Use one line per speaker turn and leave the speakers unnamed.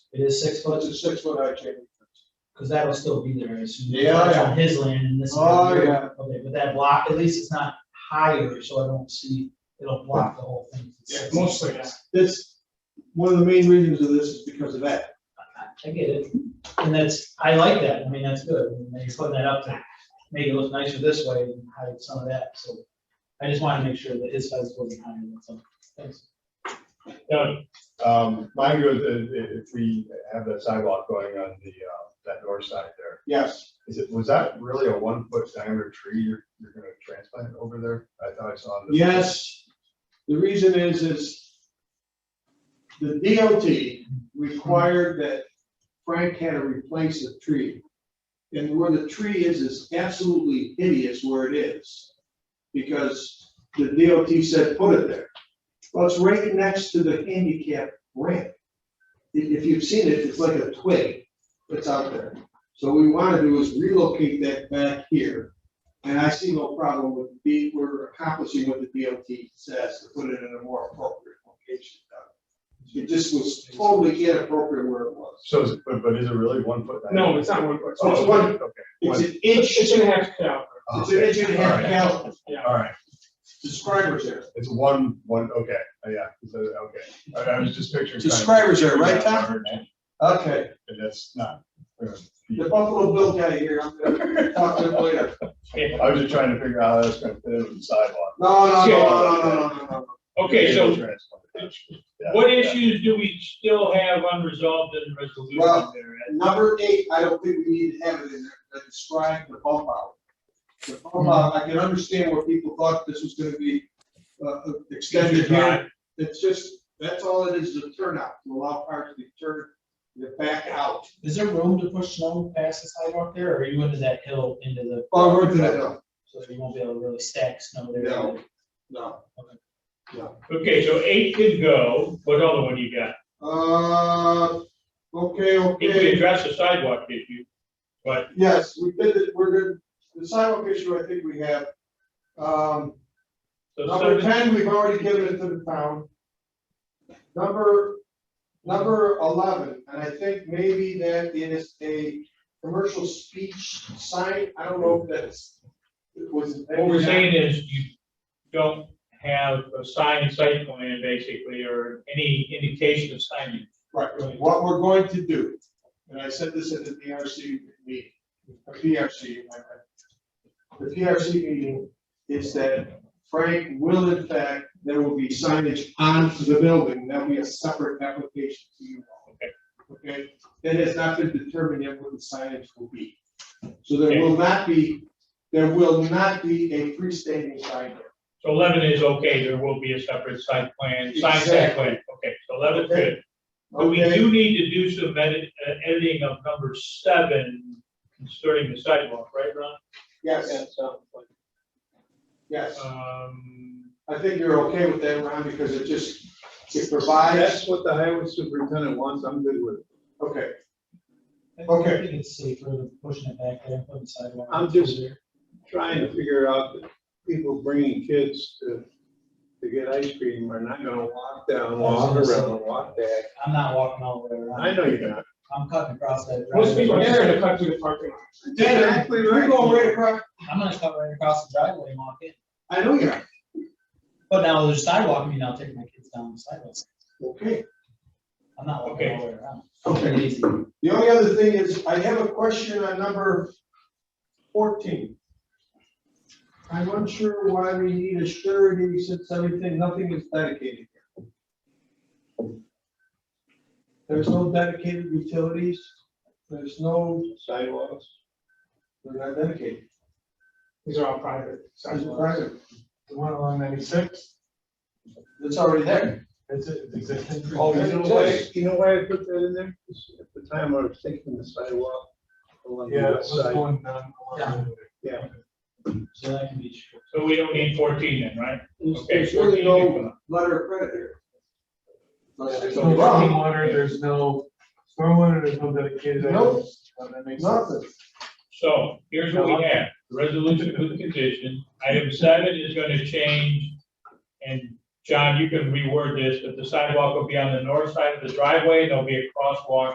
It is six
It's
foot,
a six foot high chain.
because that'll still be there, it's.
Yeah,
it's
yeah.
On his land and this. is
Oh,
on your-
yeah.
Okay, but that block, at least it's not higher, so I don't see, it'll block the whole thing. It's
Yeah,
six
mostly,
foot.
yeah. This, one of the main reasons of this is because of that.
I I get it, and that's, I like that, I mean, that's good, and they put that up to make it look nicer this way and hide some of that, so. I just wanted to make sure that his size wasn't higher than some, thanks.
Yeah, um, mine goes, uh, i- if we have that sidewalk going on the, uh, that north side there,
Yes,
is it, was that really a one foot diameter tree you're, you're gonna transplant over there? I thought I saw. the-
yes. The reason is, is the DOT required that Frank had to replace a tree. And where the tree is, is absolutely hideous where it is. Because the DOT said, put it there. Well, it's right next to the handicap ramp. If, if you've seen it, it's like a twig that's out there. So what we want to do is relocate that back here. And I see no problem with the, we're accomplishing what the DOT says, to put it in a more appropriate location. It just was totally inappropriate where it was.
So, is it- but, but is it really one foot?
No,
diameter?
it's not one foot.
Oh,
it's one-
okay. Oh,
It's
One-
an inch,
It's
it's
gonna have to cut out.
an inch and a half gallon,
Yeah.
All right,
subscribers there.
it's one, one, okay, Uh, yeah, it's a- okay, I, I was just picturing.
Subscribers there, right, Tom?
And
Okay,
that's not. uh,
the Buffalo Bill guy here, I'm gonna talk to him later.
Yeah.
I was just trying to figure out how that's gonna fit in the sidewalk.
No, no, no, no, no, no, no,
Okay, so
Transplant. Yeah.
what issues do we still have unresolved in the
Well-
resolution there?
no. Number eight, I don't think we need to have it in there, but describe the bump out. The bump out, I can understand where people thought this was gonna be, uh, extended here. It's just, that's all it is, the turnout, to allow cars to turn, to back out.
Is there room to push snow past the sidewalk there, or are you into that hill into the?
Oh, we're gonna, no,
So you won't be able to really stack snow there.
No. no.
Okay, so eight could go, what other one you got?
Uh, okay,
If we
okay,
address the sidewalk issue, but
yes, we did it, we're good, the sidewalk issue, I think we have. Um,
the
number
seven-
ten, we've already given it to the town. Number, number eleven, and I think maybe that is a commercial speech sign, I don't know if that's. It was.
what we're saying is you don't have a signed site plan basically, or any indication of signing.
Right, right. what we're going to do, and I said this at the PRC meeting, a PRC, my bad. The PRC meeting is that Frank will in fact, there will be signage onto the building, that'll be a separate application to you. all. Okay, that has not been determined yet what the signage will be. So there will not be, there will not be a freestanding sign there.
So eleven is okay, there will be a separate site plan, signed site plan, okay, so eleven's
Okay.
good. But we
Okay,
do need to do some edit, uh, editing of number seven concerning the sidewalk, right, Ron?
yes, yes,
Um,
I think you're okay with that, Ron, because it just, it provides.
what the highway superintendent wants, I'm good with it.
Okay,
I
Okay.
think it's safer than pushing it back there and putting sidewalk.
I'm just trying to figure out that people bringing kids to, to get ice cream are not gonna walk down Long Island, walk back.
I'm not walking all the way around.
I know you're not.
I'm cutting across that.
Most people
driveway.
here are cut through the parking lot.
Exactly right.
You're going right across,
I'm gonna cut right across the driveway and walk in,
I know you're,
but now there's sidewalk, I mean, I'll take my kids down the sidewalk,
okay.
I'm not walking
Okay.
all the way around.
Okay.
Easy.
The only other thing is, I have a question on number fourteen. I'm unsure why we need a surety since everything, nothing is dedicated here. There's no dedicated utilities, there's no,
Sidewalks.
they're not dedicated,
These are all private.
it's
sidewalks.
private,
The one along ninety-six,
it's already there.
it's it's existing.
Oh,
You know why, you know why I put that in there? 'Cause At the time, I was thinking the sidewalk along the
Yeah,
west
this
side.
one, um, along
Yeah,
So that can be true.
So we don't need fourteen then, right?
There's-
Okay,
There's really
14
no letter of credit here. Unless there's
There's
a
no
problem.
stormwater, there's no stormwater, there's no dedicated.
Nope.
items. That makes sense.
Nothing.
So here's what we have, The resolution with the condition, item seven is gonna change. And John, you can reword this, but the sidewalk will be on the north side of the driveway, there'll be a crosswalk